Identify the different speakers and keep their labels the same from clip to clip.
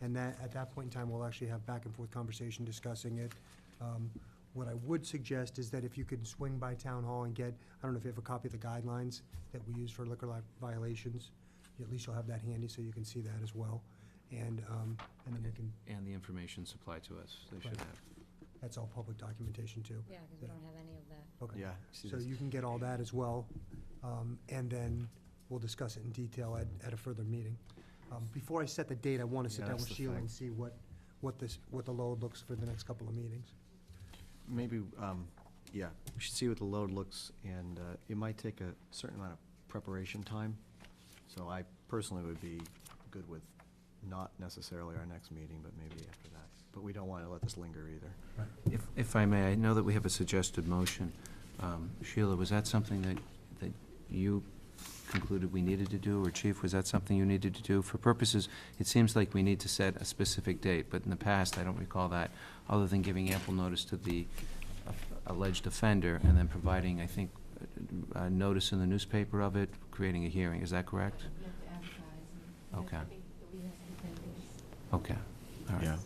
Speaker 1: And that, at that point in time, we'll actually have back and forth conversation discussing it. Um, What I would suggest is that if you could swing by town hall and get, I don't know if you have a copy of the guidelines that we use for liquor li- violations, at least you'll have that handy so you can see that as well. And, um, and then we can,
Speaker 2: And the information supplied to us, they should
Speaker 1: Right.
Speaker 2: have.
Speaker 1: that's all public documentation too.
Speaker 3: Yeah, because we
Speaker 1: Yeah.
Speaker 3: don't have any of that.
Speaker 1: Okay.
Speaker 4: Yeah. see
Speaker 1: So
Speaker 4: this.
Speaker 1: you can get all that as well, um, and then we'll discuss it in detail at, at a further meeting. Um, Before I set the date, I want to sit
Speaker 4: Yeah,
Speaker 1: down
Speaker 4: that's
Speaker 1: with
Speaker 4: the
Speaker 1: Sheila
Speaker 4: thing.
Speaker 1: and see what, what this, what the load looks for the next couple of meetings.
Speaker 4: Maybe, um, yeah, we should see what the load looks, and uh, it might take a certain amount of preparation time. So I personally would be good with not necessarily our next meeting, but maybe after that. But we don't want to let this linger either.
Speaker 2: If, if I may, I know that we have a suggested motion. Um, Sheila, was that something that, that you concluded we needed to do, or Chief, was that something you needed to do? For purposes, it seems like we need to set a specific date, but in the past, I don't recall that, other than giving ample notice to the alleged offender, and then providing, I think, a a notice in the newspaper of it, creating a hearing, is that correct?
Speaker 5: We have to advertise and we
Speaker 2: Okay.
Speaker 5: have to be- we have to be vendors.
Speaker 2: Okay, all right.
Speaker 4: Yeah.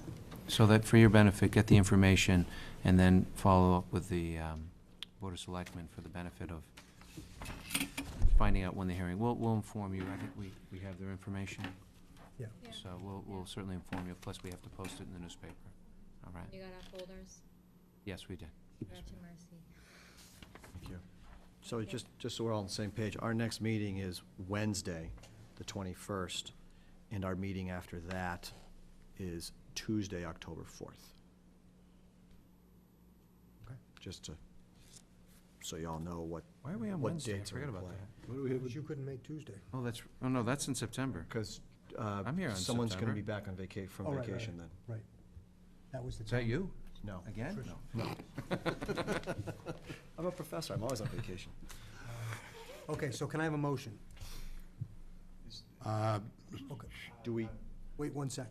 Speaker 2: So that for your benefit, get the information and then follow up with the um, Board of Selectmen for the benefit of finding out when the hearing, we'll, we'll inform you, I think we, we have their information.
Speaker 1: Yeah.
Speaker 3: Yeah.
Speaker 2: So we'll, we'll certainly inform you, plus we have to post it in the newspaper. All right,
Speaker 3: You got our folders?
Speaker 2: yes, we did.
Speaker 3: You're
Speaker 2: Yes,
Speaker 3: at
Speaker 2: we
Speaker 3: your
Speaker 2: did.
Speaker 3: mercy.
Speaker 4: Thank you. So it's just, just so we're all on the same page, our next meeting is Wednesday, the 21st, and our meeting after that is Tuesday, October 4th.
Speaker 1: Okay.
Speaker 4: Just to, so y'all know what.
Speaker 2: Why are we on
Speaker 4: what
Speaker 2: Wednesday? I
Speaker 4: dates are in
Speaker 2: forgot about
Speaker 4: play.
Speaker 2: that.
Speaker 4: What do we have?
Speaker 1: Because you couldn't make Tuesday.
Speaker 2: Oh, that's, oh, no, that's in September.
Speaker 4: Because
Speaker 2: I'm here on
Speaker 4: uh, someone's going
Speaker 2: September.
Speaker 4: to be back on vaca,
Speaker 1: Oh,
Speaker 4: from
Speaker 1: right, right,
Speaker 4: vacation
Speaker 1: right.
Speaker 4: then.
Speaker 1: Right. That was the.
Speaker 2: Is that
Speaker 1: time.
Speaker 2: you?
Speaker 4: No.
Speaker 2: Again?
Speaker 1: Trish.
Speaker 4: I'm a professor, I'm always on vacation.
Speaker 1: Uh, Okay, so can I have a motion?
Speaker 6: Uh,
Speaker 1: Okay,
Speaker 4: Do we,
Speaker 1: wait one sec.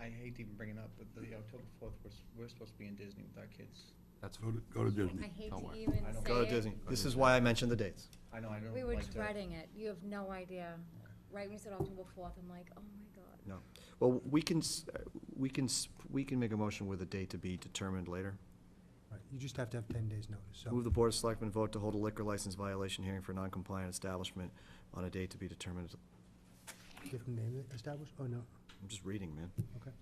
Speaker 7: I hate to even bringing up, but the October fourth, we're, s- we're supposed to be in Disney with our kids.
Speaker 2: That's,
Speaker 6: Go to- go to
Speaker 3: I
Speaker 6: Disney.
Speaker 3: hate
Speaker 2: Don't
Speaker 3: to
Speaker 2: worry.
Speaker 3: even say
Speaker 7: I don't-
Speaker 3: it.
Speaker 4: go to Disney. This is why I mentioned the dates.
Speaker 7: I know, I don't like
Speaker 3: We
Speaker 7: to.
Speaker 3: were dreading it. You have no idea. Right when you said October fourth, I'm like, oh my god.
Speaker 4: No. Well, we can, s- uh, we can, s- we can make a motion with a date to be determined later.
Speaker 1: Right, You just have to have ten days' notice, so.
Speaker 4: Move the Board of Selectmen vote to hold a liquor license violation hearing for non-compliant establishment on a date to be determined.
Speaker 1: Different name established? Oh, no,
Speaker 4: I'm just reading, man.
Speaker 1: okay.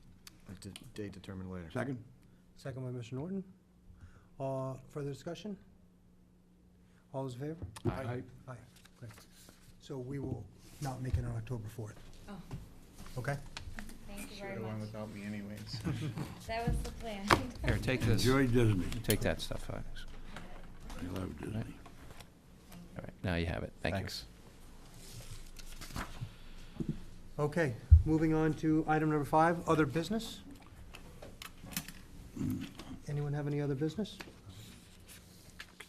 Speaker 4: A d- date determined later.
Speaker 6: Second?
Speaker 1: Second by Mr. Norton. Uh, further discussion? All those in favor?
Speaker 6: Aye.
Speaker 1: Aye, great. So we will not make it on October 4th,
Speaker 3: Oh,
Speaker 1: okay?
Speaker 3: thank you
Speaker 7: Should
Speaker 3: very
Speaker 7: have went
Speaker 3: much.
Speaker 7: without me anyways.
Speaker 3: That was the plan.
Speaker 2: here, take this,
Speaker 6: Enjoy Disney.
Speaker 2: take that stuff, Alex.
Speaker 6: I love Disney.
Speaker 2: All right, now you have it, thank you.
Speaker 4: Thanks.
Speaker 1: Okay, moving on to item number five, other business. Anyone have any other business?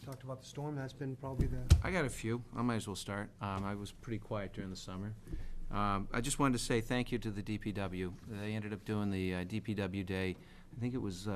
Speaker 1: Talked about the storm, that's been probably the,
Speaker 2: I got a few. I might as well start. Um, I was pretty quiet during the summer. Um, I just wanted to say thank you to the DPW. They ended up doing the uh, DPW Day, I think it was uh,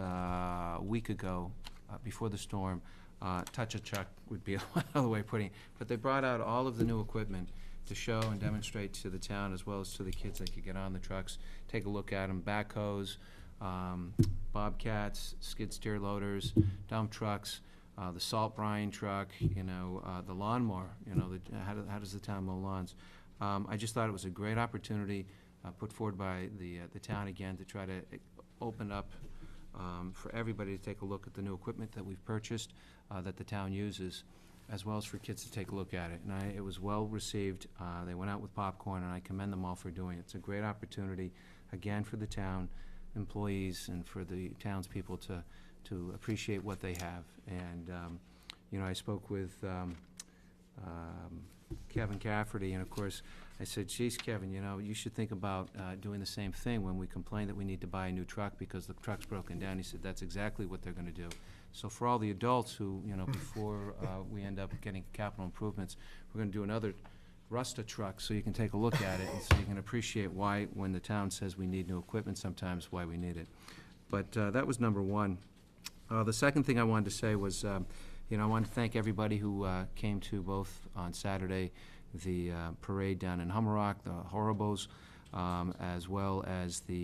Speaker 2: a week ago, uh, before the storm. Uh, Touch a Chuck would be another way of putting it. But they brought out all of the new equipment to show and demonstrate to the town as well as to the kids that could get on the trucks, take a look at them, backhoes, um, bobcats, skid steer loaders, dump trucks uh, the salt brine truck, you know, uh, the lawnmower, you know, the, how, do, how does the town mow lawns? Um, I just thought it was a great opportunity, uh, put forward by the, uh, the town again to try to eh, open up, um, for everybody to take a look at the new equipment that we've purchased, uh, that the town uses, as well as for kids to take a look at it. And I, it was well-received, uh, they went out with popcorn, and I commend them all for doing it. It's a great opportunity, again, for the town employees and for the townspeople to, to appreciate what they have. And, um, you know, I spoke with, um, um, Kevin Cafferty, and of course, I said, geez, Kevin, you know, you should think about, uh, doing the same thing when we complain that we need to buy a new truck because the truck's broken down. He said, that's exactly what they're gonna do. So for all the adults who, you know, before, uh, we end up getting capital improvements, we're gonna do another Rusta truck, so you can take a look at it, and so you can appreciate why, when the town says we need new equipment, sometimes why we need it. But, uh, that was number one. Uh, The second thing I wanted to say was, um, you know, I wanted to thank everybody who uh, came to both on Saturday, the uh, parade down in Hummerock, the Horribles, um, as well as the